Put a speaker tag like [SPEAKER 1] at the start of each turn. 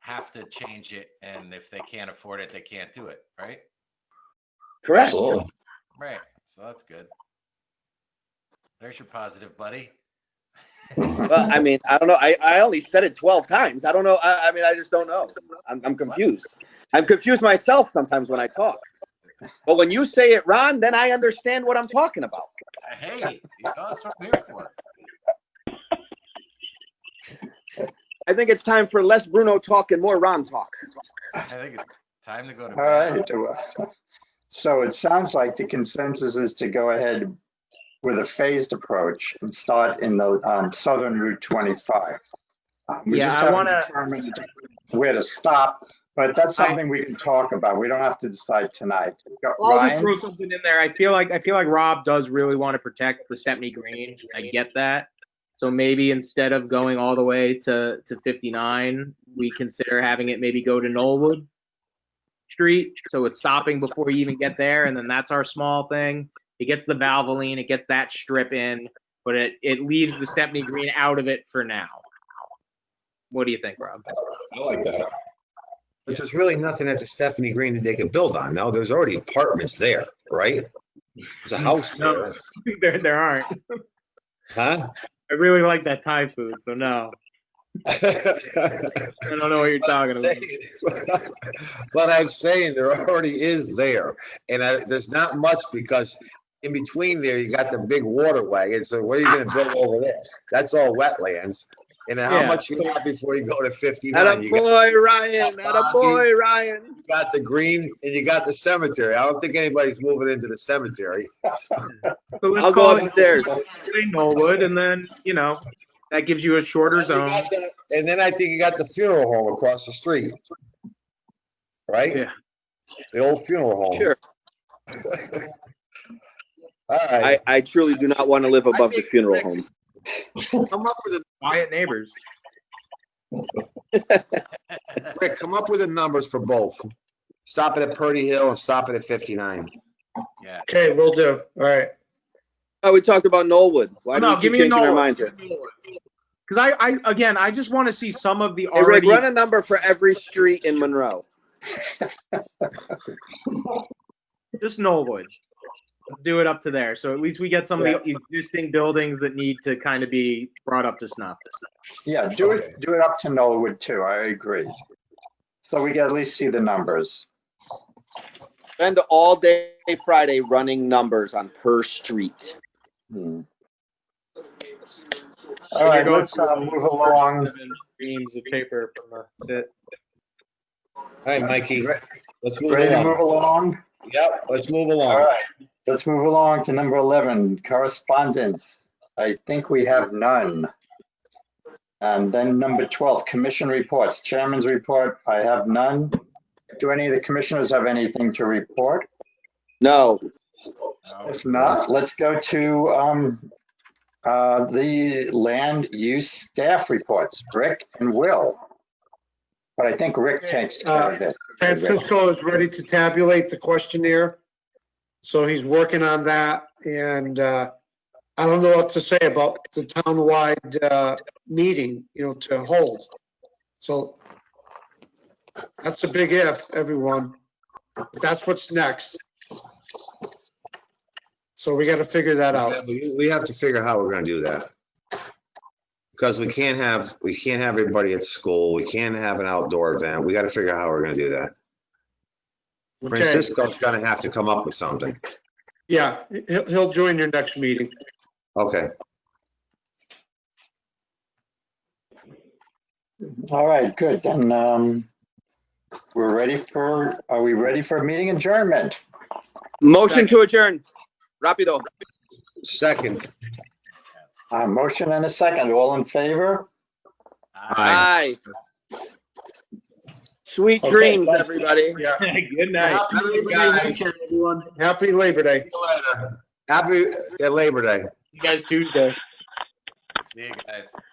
[SPEAKER 1] have to change it, and if they can't afford it, they can't do it, right?
[SPEAKER 2] Correct.
[SPEAKER 3] Absolutely.
[SPEAKER 1] Right. So that's good. There's your positive, buddy.
[SPEAKER 2] Well, I mean, I don't know. I, I only said it 12 times. I don't know. I, I mean, I just don't know. I'm, I'm confused. I'm confused myself sometimes when I talk. But when you say it, Ron, then I understand what I'm talking about.
[SPEAKER 1] Uh, Hey, you know, that's what I'm here for.
[SPEAKER 2] I think it's time for less Bruno talk and more Ron talk.
[SPEAKER 1] I think it's time to go to
[SPEAKER 4] All
[SPEAKER 1] bed.
[SPEAKER 4] right. well, So it sounds like the consensus is to go ahead with a phased approach and start in the um, southern Route 25. Um, We
[SPEAKER 5] Yeah,
[SPEAKER 4] just
[SPEAKER 5] I
[SPEAKER 4] haven't
[SPEAKER 5] wanna-
[SPEAKER 4] determined where to stop, but that's something we can talk about. We don't have to decide tonight. Go-
[SPEAKER 5] I'll just
[SPEAKER 4] Ryan,
[SPEAKER 5] throw something in there. I feel like I feel like Rob does really want to protect the Stepney Green. I get that. So maybe instead of going all the way to, to 59, we consider having it maybe go to Knollwood Street. So it's stopping before you even get there, and then that's our small thing. It gets the Valvoline, it gets that strip in, but it, it leaves the Stepney Green out of it for now. What do you think, Rob?
[SPEAKER 3] I like that.
[SPEAKER 6] Because there's really nothing at the Stephanie Green that they could build on now. There's already apartments there, right? There's a house
[SPEAKER 5] Mm. No.
[SPEAKER 6] there,
[SPEAKER 5] there, there aren't.
[SPEAKER 6] huh?
[SPEAKER 5] I really like that Thai food, so no. I don't know what you're talking about.
[SPEAKER 6] But I'm saying there already is there, and I, there's not much because in between there, you got the big water wagon, so what are you gonna build over there? That's all wetlands. And then how
[SPEAKER 5] Yeah.
[SPEAKER 6] much you got before you go to fifty-nine? You got-
[SPEAKER 2] Attaboy, Ryan. Attaboy, Ryan.
[SPEAKER 6] you got the green and you got the cemetery. I don't think anybody's moving into the cemetery.
[SPEAKER 5] So let's
[SPEAKER 2] I'll go
[SPEAKER 5] call it
[SPEAKER 2] upstairs.
[SPEAKER 5] Knollwood, and then you know that gives you a shorter
[SPEAKER 6] And you
[SPEAKER 5] zone.
[SPEAKER 6] got the- And then I think you got the funeral home across the street. Right?
[SPEAKER 5] Yeah.
[SPEAKER 6] The old funeral home.
[SPEAKER 2] Sure.
[SPEAKER 6] All
[SPEAKER 2] I,
[SPEAKER 6] right.
[SPEAKER 2] I truly do not want to live above the funeral home.
[SPEAKER 6] Come up with a,
[SPEAKER 5] Quiet neighbors.
[SPEAKER 6] Rick, come up with the numbers for both. Stop it at Purdy Hill and stop it at fifty-nine.
[SPEAKER 1] Yeah.
[SPEAKER 7] Okay, we will do. All right.
[SPEAKER 2] Oh, we talked about Knollwood. Why do
[SPEAKER 5] No,
[SPEAKER 2] you keep
[SPEAKER 5] give me a
[SPEAKER 2] changing our minds
[SPEAKER 5] Knollwood.
[SPEAKER 2] here?
[SPEAKER 5] Because I, I again, I just want to see some of the
[SPEAKER 2] Hey, Rick,
[SPEAKER 5] already.
[SPEAKER 2] run a number for every street in Monroe.
[SPEAKER 5] Just Knollwood. Let's do it up to there. So at least we get some of the existing buildings that need to kind of be brought up to snuff.
[SPEAKER 4] yeah, do it, do it up to Knollwood too. I agree. So we can at least see the numbers.
[SPEAKER 2] Spend all day Friday running numbers on per street.
[SPEAKER 4] Hmm. All right, let's uh, move along.
[SPEAKER 5] Reams of paper from the.
[SPEAKER 6] All right, Mikey, let's move
[SPEAKER 4] Ready to move
[SPEAKER 6] along.
[SPEAKER 4] along?
[SPEAKER 6] Yep, let's move
[SPEAKER 4] All
[SPEAKER 6] along.
[SPEAKER 4] right, let's move along to number 11, correspondence. I think we have none. And then number 12, commission reports, chairman's report, I have none. Do any of the commissioners have anything to report?
[SPEAKER 2] No,
[SPEAKER 1] No.
[SPEAKER 4] If not, let's go to um, uh, the land use staff reports, Rick and Will. But I think Rick takes care of it.
[SPEAKER 7] Francisco is ready to tabulate the questionnaire. So he's working on that and uh, I don't know what to say about the townwide uh, meeting, you know, to hold. So that's a big if, everyone. That's what's next. So we got to figure that
[SPEAKER 6] Yeah,
[SPEAKER 7] out.
[SPEAKER 6] but We we have to figure how we're gonna do that. Because we can't have, we can't have everybody at school. We can't have an outdoor event. We gotta figure out how we're gonna do that.
[SPEAKER 7] Okay,
[SPEAKER 6] Francisco's gonna have to come up with something.
[SPEAKER 7] yeah, he'll, he'll join your next meeting.
[SPEAKER 6] Okay.
[SPEAKER 4] All right, good, then um, we're ready for, are we ready for meeting adjournment?
[SPEAKER 2] motion to adjourn. Rapido.
[SPEAKER 6] Second,
[SPEAKER 4] Uh, motion and a second, all in favor?
[SPEAKER 1] Aye.
[SPEAKER 2] Aye. Sweet
[SPEAKER 4] Okay,
[SPEAKER 2] dreams,
[SPEAKER 4] thanks.
[SPEAKER 2] everybody.
[SPEAKER 7] Yeah.
[SPEAKER 5] Good night.
[SPEAKER 7] Happy Labor Day weekend, everyone. Happy Labor Day.
[SPEAKER 6] happy uh, Labor Day.
[SPEAKER 5] You guys Tuesday.
[SPEAKER 1] See you guys.